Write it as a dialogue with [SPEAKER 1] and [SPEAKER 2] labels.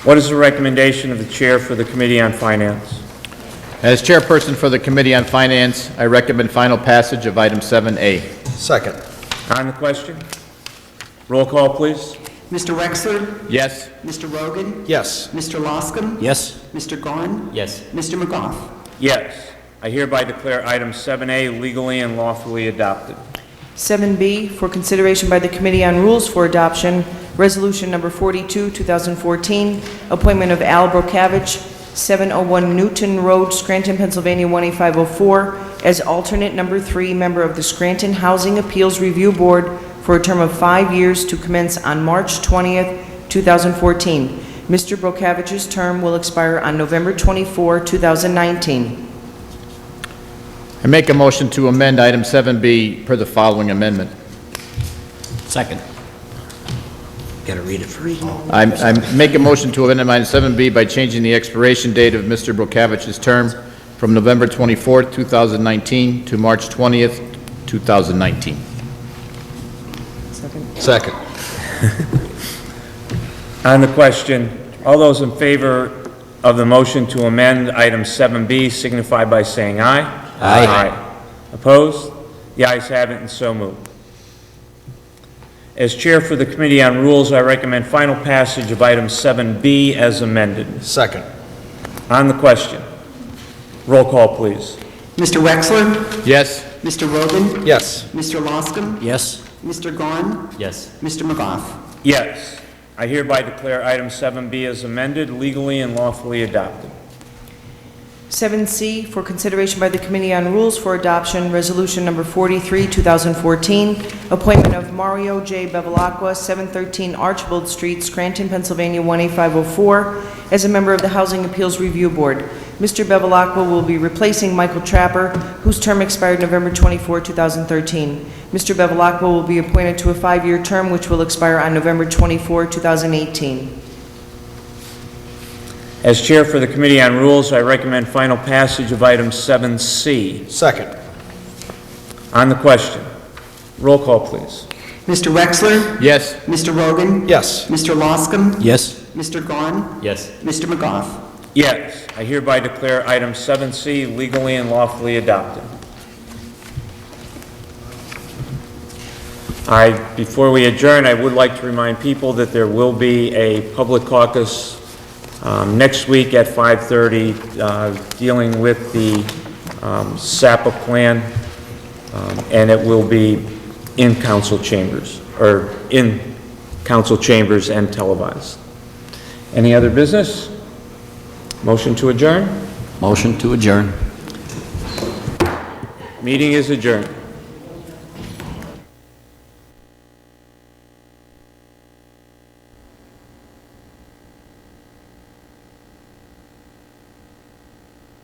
[SPEAKER 1] What is the recommendation of the Chair for the Committee on Finance?
[SPEAKER 2] As chairperson for the Committee on Finance, I recommend final passage of item 7A.
[SPEAKER 3] Second.
[SPEAKER 1] On the question? Roll call, please.
[SPEAKER 4] Mr. Wexler?
[SPEAKER 2] Yes?
[SPEAKER 4] Mr. Rogan?
[SPEAKER 3] Yes.
[SPEAKER 4] Mr. Loscom?
[SPEAKER 5] Yes.
[SPEAKER 4] Mr. Gahn?
[SPEAKER 5] Yes.
[SPEAKER 4] Mr. McGough?
[SPEAKER 1] Yes. I hereby declare item 7A legally and lawfully adopted.
[SPEAKER 6] 7B for consideration by the Committee on Rules for Adoption, Resolution Number 42, 2014, appointment of Al Brokavich, 701 Newton Road, Scranton, Pennsylvania 18504, as alternate number three member of the Scranton Housing Appeals Review Board for a term of five years to commence on March 20th, 2014. Mr. Brokavich's term will expire on November 24, 2019.
[SPEAKER 2] I make a motion to amend item 7B per the following amendment.
[SPEAKER 5] Second. Got to read it first.
[SPEAKER 2] I I make a motion to amend item 7B by changing the expiration date of Mr. Brokavich's term from November 24th, 2019 to March 20th, 2019.
[SPEAKER 3] Second.
[SPEAKER 1] On the question, all those in favor of the motion to amend item 7B signify by saying aye.
[SPEAKER 5] Aye.
[SPEAKER 1] Opposed? The ayes have it and so moved. As Chair for the Committee on Rules, I recommend final passage of item 7B as amended.
[SPEAKER 3] Second.
[SPEAKER 1] On the question, roll call, please.
[SPEAKER 4] Mr. Wexler?
[SPEAKER 2] Yes?
[SPEAKER 4] Mr. Rogan?
[SPEAKER 3] Yes.
[SPEAKER 4] Mr. Loscom?
[SPEAKER 5] Yes.
[SPEAKER 4] Mr. Gahn?
[SPEAKER 5] Yes.
[SPEAKER 4] Mr. McGough?
[SPEAKER 1] Yes. I hereby declare item 7B as amended legally and lawfully adopted.
[SPEAKER 6] 7C for consideration by the Committee on Rules for Adoption, Resolution Number 43, 2014, appointment of Mario J. Bevelacqua, 713 Archibald Street, Scranton, Pennsylvania 18504, as a member of the Housing Appeals Review Board. Mr. Bevelacqua will be replacing Michael Trapper, whose term expired November 24, 2013. Mr. Bevelacqua will be appointed to a five-year term which will expire on November 24, 2018.
[SPEAKER 1] As Chair for the Committee on Rules, I recommend final passage of item 7C.
[SPEAKER 3] Second.
[SPEAKER 1] On the question, roll call, please.
[SPEAKER 4] Mr. Wexler?
[SPEAKER 2] Yes?
[SPEAKER 4] Mr. Rogan?
[SPEAKER 3] Yes.
[SPEAKER 4] Mr. Loscom?
[SPEAKER 5] Yes.
[SPEAKER 4] Mr. Gahn?
[SPEAKER 5] Yes.
[SPEAKER 4] Mr. McGough?
[SPEAKER 1] Yes. I hereby declare item 7C legally and lawfully adopted. I, before we adjourn, I would like to remind people that there will be a public caucus um, next week at 5:30 uh, dealing with the um, SAPA plan, um, and it will be in council chambers, or in council chambers and televised. Any other business? Motion to adjourn?
[SPEAKER 5] Motion to adjourn.
[SPEAKER 1] Meeting is adjourned.